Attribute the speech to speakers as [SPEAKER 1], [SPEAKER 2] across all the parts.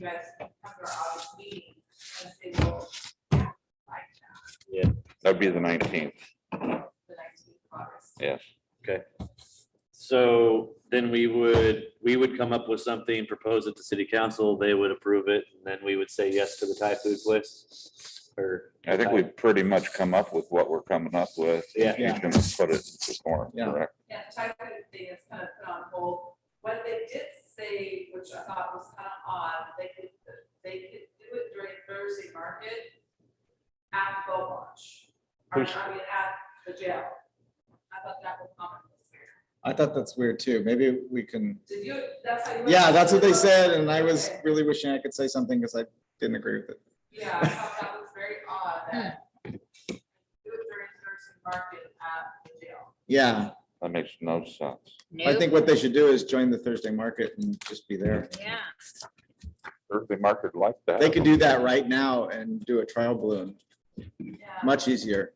[SPEAKER 1] guys after our meeting and say, well, yeah, like that,
[SPEAKER 2] That'd be the nineteenth,
[SPEAKER 1] the nineteenth of August.
[SPEAKER 2] yes.
[SPEAKER 3] So then we would, we would come up with something, propose it to city council, they would approve it, and then we would say yes to the Thai food place? Or?
[SPEAKER 2] I think we've pretty much come up with what we're coming up with.
[SPEAKER 3] Yeah.
[SPEAKER 2] He's gonna put it into form,
[SPEAKER 4] Yeah.
[SPEAKER 2] correct?
[SPEAKER 1] Yeah, the type of thing is kind of put on hold. What they did say, which I thought was kind of odd, they could, they could do it during Thursday market at the boat launch. Or,
[SPEAKER 3] Which-
[SPEAKER 1] I mean, at the jail. I thought that was common this year.
[SPEAKER 4] I thought that's weird too. Maybe we can,
[SPEAKER 1] Did you, that's how you.
[SPEAKER 4] yeah, that's what they said. And I was
[SPEAKER 1] Okay.
[SPEAKER 4] really wishing I could say something because I didn't agree with it.
[SPEAKER 1] Yeah, I thought that was very odd that do it during Thursday market at the jail.
[SPEAKER 4] Yeah,
[SPEAKER 2] That makes no sense.
[SPEAKER 4] I think what they should do is join the Thursday market and just be there.
[SPEAKER 5] Yeah,
[SPEAKER 2] Thursday market like that.
[SPEAKER 4] They could do that right now and do a trial balloon.
[SPEAKER 1] Yeah.
[SPEAKER 4] Much easier.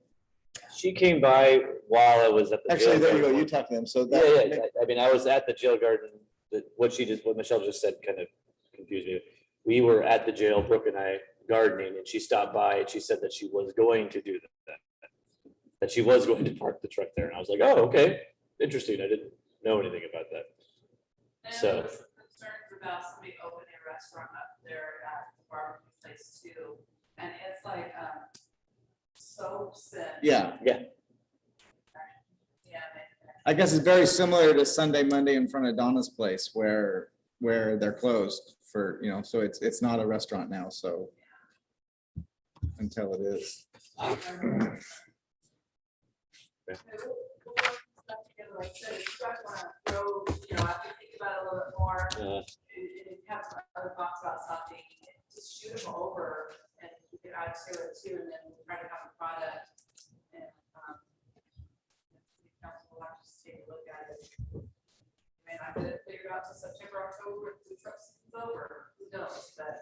[SPEAKER 3] She came by while I was at the.
[SPEAKER 4] Actually,
[SPEAKER 3] jail
[SPEAKER 4] there you go.
[SPEAKER 3] garden.
[SPEAKER 4] You talk to them. So
[SPEAKER 3] Yeah,
[SPEAKER 4] that,
[SPEAKER 3] yeah, I- I mean, I was at the jail garden, that, what she just, what Michelle just said kind of confused me. We were at the jail, Brooke and I gardening, and she stopped by and she said that she was going to do that. That she was going to park the truck there, and I was like, oh, okay, interesting, I didn't know anything about that.
[SPEAKER 1] And
[SPEAKER 3] So-
[SPEAKER 1] there was some concerns about somebody opening a restaurant up there at the barbecue place too. And it's like, um, soaps and.
[SPEAKER 4] yeah,
[SPEAKER 1] Yeah, and-
[SPEAKER 4] I guess it's very similar to Sunday, Monday in front of Donna's place where, where they're closed for, you know, so it's, it's not a restaurant now, so. Until it is.
[SPEAKER 1] and- We'll- we'll work stuff together, Like I said, if you guys wanna go, you know, I can think about it a little bit more.
[SPEAKER 3] Uh,
[SPEAKER 1] and- and have some other thoughts about something, just shoot them over and you can add to it too, and then we'll try to have a product. and um, the Council will have to just take a look at it. May not have to figure out to September, October, if the truck's over, who knows, but.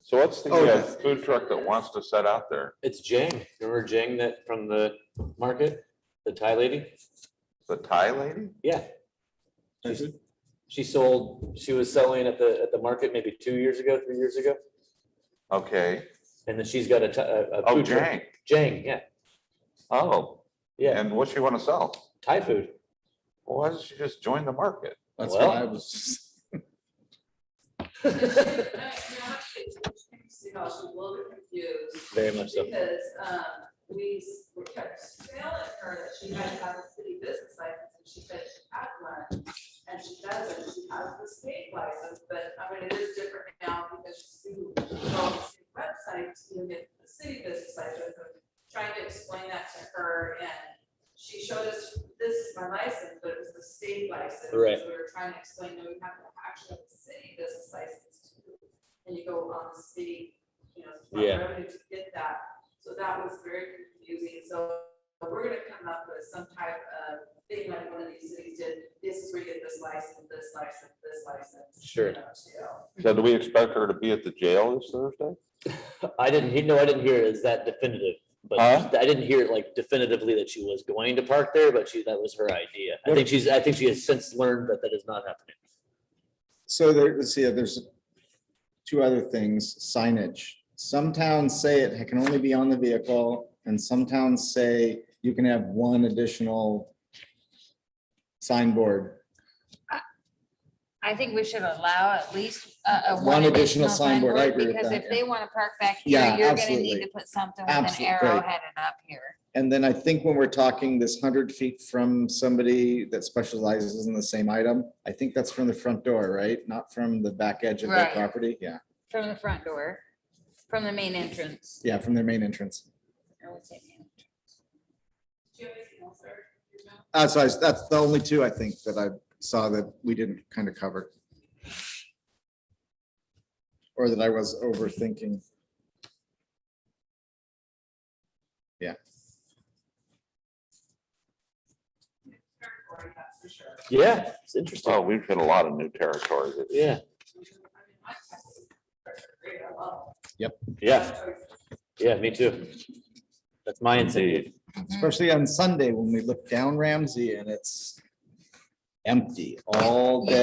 [SPEAKER 2] So what's the
[SPEAKER 4] Oh,
[SPEAKER 2] uh,
[SPEAKER 4] yeah.
[SPEAKER 2] food truck that wants to set out there?
[SPEAKER 3] It's Jang, remember Jang that from the market, the Thai lady?
[SPEAKER 2] The Thai lady?
[SPEAKER 3] Yeah.
[SPEAKER 4] Is
[SPEAKER 3] She- She sold, she was selling at the, at the market maybe two years ago, three years ago,
[SPEAKER 2] Okay.
[SPEAKER 3] and then she's got a, t- a- a
[SPEAKER 2] Oh,
[SPEAKER 3] food truck.
[SPEAKER 2] Jang.
[SPEAKER 3] Jang, yeah,
[SPEAKER 2] Oh,
[SPEAKER 3] yeah,
[SPEAKER 2] and what's she wanna sell?
[SPEAKER 3] Thai food.
[SPEAKER 2] Well, Why doesn't she just join the market?
[SPEAKER 4] That's what I
[SPEAKER 3] Well.
[SPEAKER 4] was.
[SPEAKER 1] You know, she's a little bit confused.
[SPEAKER 3] Very much so.
[SPEAKER 1] Because, um, we s- were kept telling her that she had to have a city business license, and she said she had one, and she doesn't, she has the state license, but, I mean, it is different now because you go on the city website to get the city business license, and trying to explain that to her, and she showed us, this is my license, but it was the state license.
[SPEAKER 3] Right.
[SPEAKER 1] So We were trying to explain, no, you have to actually have a city business license, too, and you go on the state, you know, front
[SPEAKER 3] Yeah.
[SPEAKER 1] revenue to get that. So that was very confusing. So we're gonna come up with some type of thing like one of these cities did. This is where you get this license, this license, this license.
[SPEAKER 3] Sure.
[SPEAKER 1] you know, too.
[SPEAKER 2] So do we expect her to be at the jail this Thursday?
[SPEAKER 3] I didn't, he- no, I didn't hear it as that definitive, but
[SPEAKER 2] Huh?
[SPEAKER 3] I didn't hear it like definitively that she was going to park there, but she, that was her idea. I think she's, I think she has since learned that that is not happening.
[SPEAKER 4] So there, let's see, uh, there's two other things, signage. Some towns say it can only be on the vehicle, and some towns say you can have one additional signboard.
[SPEAKER 5] I think we should allow at least a, a.
[SPEAKER 4] One additional signboard, I agree with
[SPEAKER 5] Because
[SPEAKER 4] that,
[SPEAKER 5] if
[SPEAKER 4] yeah.
[SPEAKER 5] they want to park back here,
[SPEAKER 4] Yeah,
[SPEAKER 5] you're gonna
[SPEAKER 4] absolutely.
[SPEAKER 5] need to put something with an
[SPEAKER 4] Absolute-
[SPEAKER 5] arrow
[SPEAKER 4] right.
[SPEAKER 5] headed up here.
[SPEAKER 4] And then I think when we're talking this hundred feet from somebody that specializes in the same item, I think that's from the front door, right? Not from the back edge of their
[SPEAKER 5] Right.
[SPEAKER 4] property. Yeah,
[SPEAKER 5] From the front door, from the main entrance.
[SPEAKER 4] yeah, from their main entrance.
[SPEAKER 5] I would say main.
[SPEAKER 1] Do you have anything else, sir? You know?
[SPEAKER 4] Uh, so I, that's the only two I think that I saw that we didn't kind of cover. Or that I was overthinking.
[SPEAKER 1] Territory, that's for sure.
[SPEAKER 3] Yeah, it's interesting.
[SPEAKER 2] Oh, we've hit a lot of new territory. that-
[SPEAKER 3] Yeah,
[SPEAKER 1] I mean, my- Great, I love
[SPEAKER 3] yeah, yeah, me too. That's my incentive.
[SPEAKER 4] Especially on Sunday when we look down Ramsey and it's empty all day.